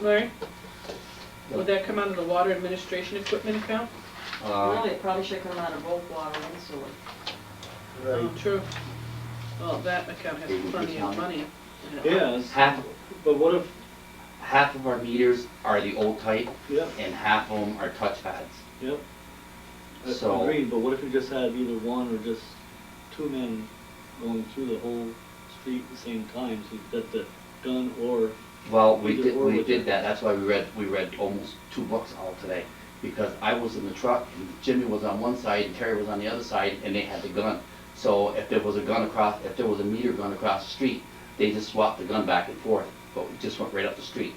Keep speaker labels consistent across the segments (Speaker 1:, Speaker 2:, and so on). Speaker 1: Larry? Would that come out of the water administration equipment account?
Speaker 2: Really,
Speaker 3: Uh,
Speaker 2: it probably should come out of both water and sewer.
Speaker 3: Um,
Speaker 1: Oh, True. Well, that account has plenty of money in it.
Speaker 4: Yes,
Speaker 3: Half,
Speaker 4: but what if,
Speaker 3: half of our meters are the old type
Speaker 4: yeah,
Speaker 3: and half of them are touchpads.
Speaker 4: yeah. I-
Speaker 3: So-
Speaker 4: Agreed, but what if you just had either one or just two men going through the whole street at the same time, so you've got the gun or,
Speaker 3: Well, we
Speaker 4: Either
Speaker 3: did,
Speaker 4: or
Speaker 3: we
Speaker 4: would you-
Speaker 3: did that, that's why we read, we read almost two books out today. Because I was in the truck and Jimmy was on one side and Terry was on the other side and they had the gun. So if there was a gun across, if there was a meter gun across the street, they just swapped the gun back and forth, but we just went right up the street.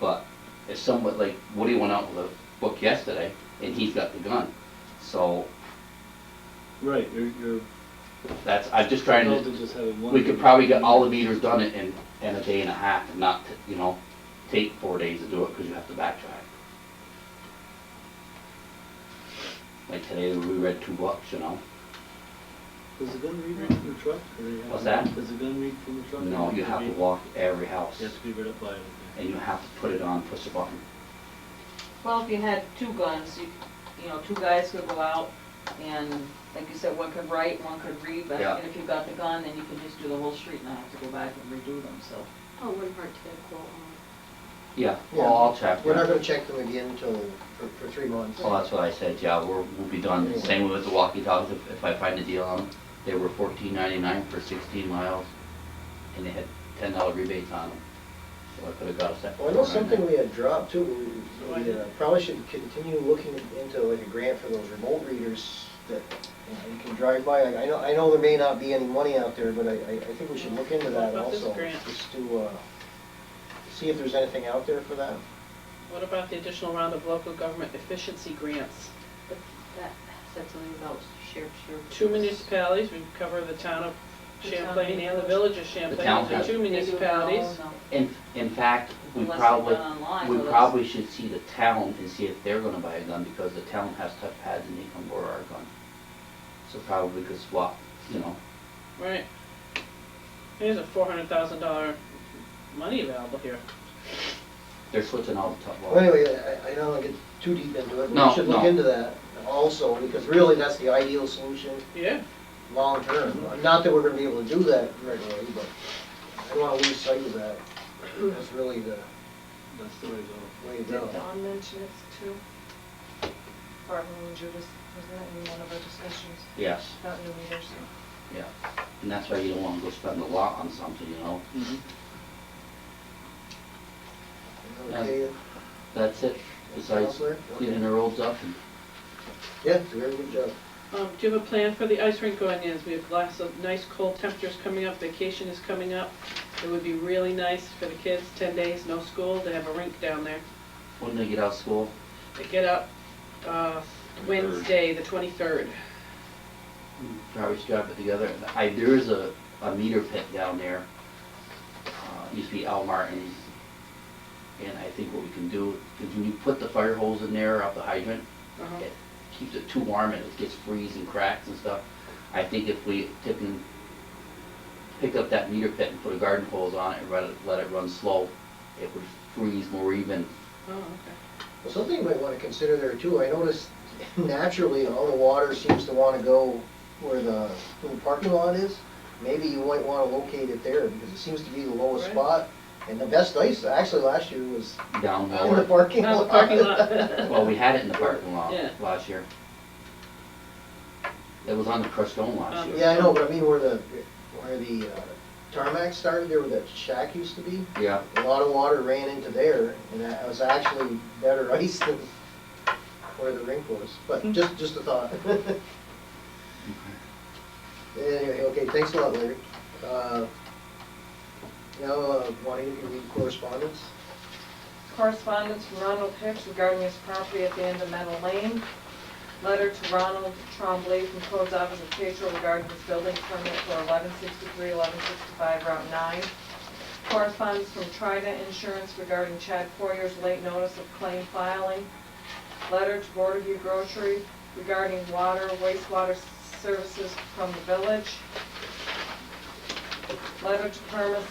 Speaker 3: But it's somewhat like Woody went out with a book yesterday and he's got the gun. So
Speaker 4: right, you're, you're,
Speaker 3: that's, I'm just trying
Speaker 4: rather
Speaker 3: to,
Speaker 4: than just having one.
Speaker 3: we could probably get all the meters done in, in- in a day and a half and not, you know, take four days to do it because you have to backtrack. Like today, we read two books, you know?
Speaker 4: Does the gun read from the truck? or you have-
Speaker 3: What's that?
Speaker 4: Does the gun read from the truck?
Speaker 3: No, you have to walk every house
Speaker 4: You have to be right up by it. okay.
Speaker 3: and you have to put it on, push the button.
Speaker 2: Well, if you had two guns, you, you know, two guys could go out and, like you said, one could write, one could read, but
Speaker 3: Yeah.
Speaker 2: and if you got the gun, then you could just do the whole street and not have to go back and redo them, so.
Speaker 5: Oh, it wouldn't hurt to get a quote um, on
Speaker 3: Yeah,
Speaker 6: Yeah.
Speaker 3: well, I'll check.
Speaker 6: We're not
Speaker 3: yeah.
Speaker 6: gonna check them again until, for, for three months.
Speaker 3: Well, that's what I said, yeah, we're, we'll be done. Same with the walkie-talkies, if, if I find a deal on them. They were fourteen ninety-nine for sixteen miles and they had ten dollar rebates on them. So I could have got a set.
Speaker 6: Well, I know something we had dropped too, we, we uh, probably should continue looking into like a grant for those remote readers that you know, you can drive by, I I know, I know there may not be any money out there, but I, I I think we should look into
Speaker 1: What
Speaker 6: that
Speaker 1: about this
Speaker 6: also.
Speaker 1: grant?
Speaker 6: Just to, uh, see if there's anything out there for that.
Speaker 1: What about the additional round of local government efficiency grants?
Speaker 5: that. Said something about shared, shared.
Speaker 1: Two municipalities, we cover the town of Champlain and the village of
Speaker 3: The
Speaker 1: Champlain,
Speaker 3: town
Speaker 1: those are
Speaker 3: has-
Speaker 1: two
Speaker 2: They do it
Speaker 1: municipalities.
Speaker 2: all, no.
Speaker 3: In, in fact, we
Speaker 2: Unless it's
Speaker 3: probably,
Speaker 2: done online,
Speaker 3: we
Speaker 2: so that's-
Speaker 3: probably should see the town and see if they're gonna buy a gun, because the town has touchpads and they can borrow our gun. So probably could swap, you know,
Speaker 1: Right. There's a four hundred thousand dollar money available here.
Speaker 3: they're switching all the tough.
Speaker 6: Well, anyway, I, I don't wanna get too deep into it, but
Speaker 3: No,
Speaker 6: we should look
Speaker 3: no.
Speaker 6: into that also, because really that's the ideal solution
Speaker 1: Yeah,
Speaker 6: long term. Not that we're gonna be able to do that right away, but I don't wanna lose sight of that. That's really the
Speaker 4: That's the way to go.
Speaker 6: way to go.
Speaker 7: Did Don mention it too? Barton and Judas, wasn't that in one of our discussions
Speaker 3: Yes,
Speaker 7: about new meters?
Speaker 3: yeah, and that's why you don't wanna go spend a lot on something, you know,
Speaker 4: Mhm.
Speaker 6: Okay,
Speaker 3: that's it, besides
Speaker 6: Counselor?
Speaker 3: cleaning the roads up and
Speaker 6: Yeah, it's a very good job.
Speaker 1: Um, do you have a plan for the ice rink going in? We have lots of nice cold temperatures coming up, vacation is coming up. It would be really nice for the kids, ten days, no school, to have a rink down there.
Speaker 3: when they get out of school,
Speaker 1: They get up, uh, Wednesday, the twenty-third.
Speaker 3: probably strap it together. I, there is a, a meter pit down there, uh, used to be Al Martin's. And I think what we can do, is when you put the fire hose in there up the hydrant, it keeps it too warm and it gets freeze and cracks and stuff. I think if we took and pick up that meter pit and put a garden hose on it and let it, let it run slow, it would freeze more even.
Speaker 1: Oh, okay.
Speaker 6: Well, something you might wanna consider there too, I noticed naturally, all the water seems to wanna go where the, where the parking lot is. Maybe you might wanna locate it there, because it seems to be the lowest
Speaker 1: Right.
Speaker 6: spot. And the best ice, actually, last year was
Speaker 3: Down
Speaker 6: in the
Speaker 3: lower,
Speaker 6: parking
Speaker 1: Now
Speaker 6: lot.
Speaker 1: the parking lot.
Speaker 3: well, we had it in the parking lot
Speaker 1: Yeah.
Speaker 3: last year. It was on the crushed stone last
Speaker 1: Um,
Speaker 3: year.
Speaker 6: Yeah, I know, but I mean where the, where the uh, tarmac started, there where that shack used to be,
Speaker 3: Yeah,
Speaker 6: a lot of water ran into there, and that was actually better ice than where the rink was, but just, just a thought. Anyway, okay, thanks a lot, Larry. Uh, Now, uh, Juanita, can you read correspondence?
Speaker 7: Correspondence from Ronald Hicks regarding his property at the end of Meadow Lane. Letter to Ronald Trombley from Code's Office of Patrol regarding his building permit for 1163, 1165 Route 9. Correspondence from Trida Insurance regarding Chad Poyer's late notice of claim filing. Letter to Board of View Grocery regarding water, wastewater services from the village. Letter to Permis